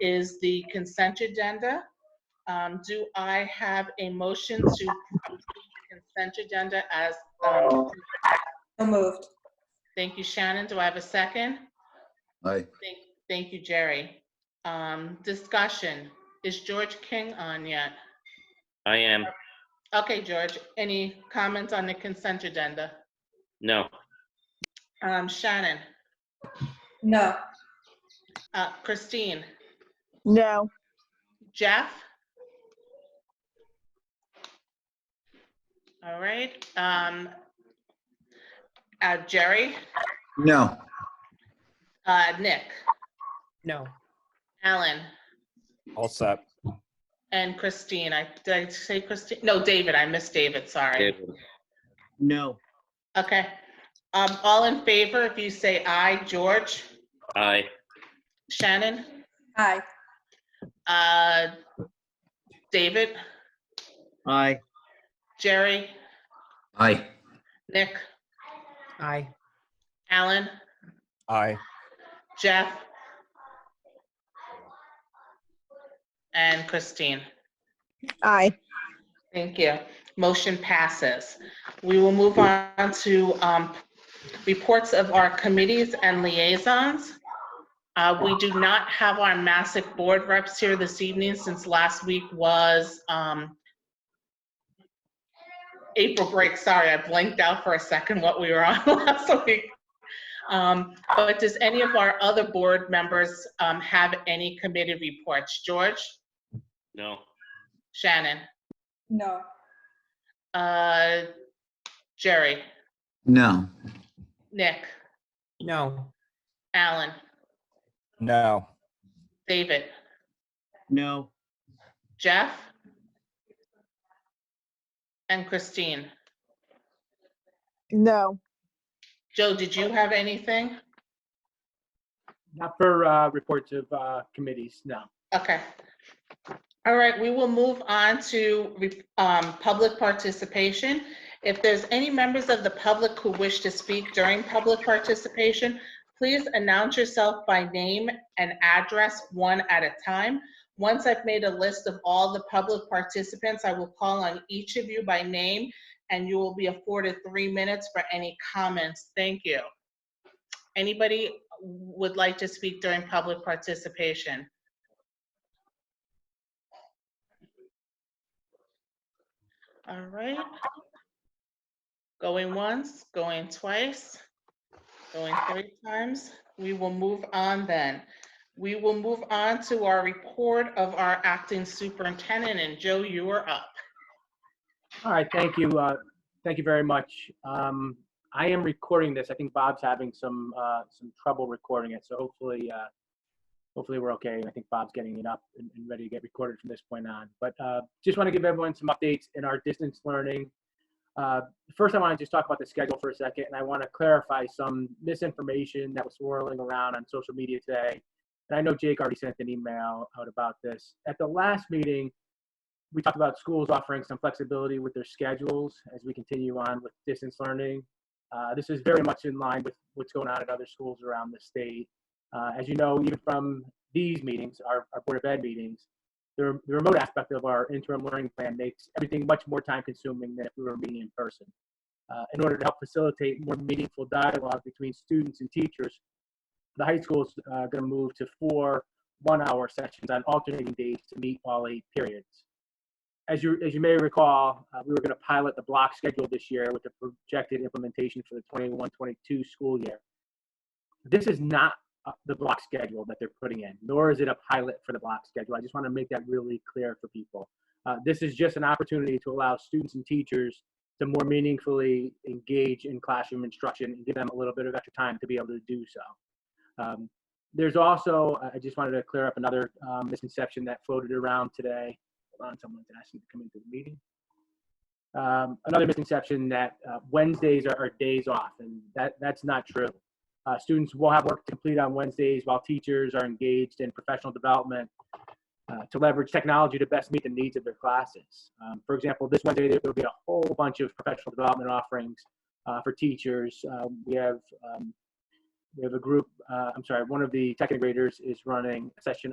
is the consent agenda. Um, Do I have a motion to approve the consent agenda as, um, So moved. thank you, Shannon. Do I have a second? Aye. Thank, thank you, Jerry. Um, Discussion. Is George King on yet? I am. Okay, George, any comments on the consent agenda? No. Um, Shannon, No. uh, Christine, No. Jeff? All right, um, uh, Jerry, No. uh, Nick, No. Alan, All set. and Christine. I, did I say Christine? No, David, I missed David, sorry. David. No. Okay, um, all in favor, if you say aye, George, I. Shannon, Aye. uh, David, Aye. Jerry, Aye. Nick, Aye. Alan, Aye. Jeff, and Christine. Aye. Thank you. Motion passes. We will move on to um, reports of our committees and liaisons. Uh, We do not have our Massic board reps here this evening since last week was um, April break. Sorry, I blanked out for a second what we were on last week. Um, But does any of our other board members um, have any committee reports? George, No. Shannon? No. Uh, Jerry, No. Nick, No. Alan, No. David, No. Jeff, and Christine. No. Joe, did you have anything? Not for uh, reports of uh, committees, no. Okay. All right, we will move on to re- um, public participation. If there's any members of the public who wish to speak during public participation, please announce yourself by name and address one at a time. Once I've made a list of all the public participants, I will call on each of you by name, and you will be afforded three minutes for any comments. Thank you. Anybody would like to speak during public participation? All right. Going once, going twice, going three times. We will move on then. We will move on to our report of our acting superintendent, and Joe, you are up. All right, thank you. uh, Thank you very much. Um, I am recording this. I think Bob's having some, uh, some trouble recording it, so hopefully, uh, hopefully we're okay. I think Bob's getting it up and and ready to get recorded from this point on. But uh, just want to give everyone some updates in our distance learning. Uh, First, I want to just talk about the schedule for a second, and I want to clarify some misinformation that was swirling around on social media today. And I know Jake already sent an email out about this. At the last meeting, we talked about schools offering some flexibility with their schedules as we continue on with distance learning. Uh, this is very much in line with what's going on at other schools around the state. Uh, as you know, even from these meetings, our, our Board of Ed meetings, the, re- the remote aspect of our interim learning plan makes everything much more time consuming than if we were meeting in person. Uh, in order to help facilitate more meaningful dialogue between students and teachers, the high school is uh, going to move to four one hour sessions on alternating days to meet all eight periods as you, as you may recall, uh, we were going to pilot the block schedule this year with the projected implementation for the 21-22 school year. This is not uh, the block schedule that they're putting in, nor is it a pilot for the block schedule. I just want to make that really clear for people. Uh, This is just an opportunity to allow students and teachers to more meaningfully engage in classroom instruction and give them a little bit of extra time to be able to do so. Um, There's also, I- I just wanted to clear up another um, misconception that floated around today hold on, someone's asking to come into the meeting. Um, another misconception that uh, Wednesdays are, are days off, and that, that's not true. Uh, students will have work to complete on Wednesdays while teachers are engaged in professional development uh, to leverage technology to best meet the needs of their classes. Um, for example, this Wednesday, there will be a whole bunch of professional development offerings uh, for teachers. Um, we have um, we have a group, uh, I'm sorry, one of the second graders is running a session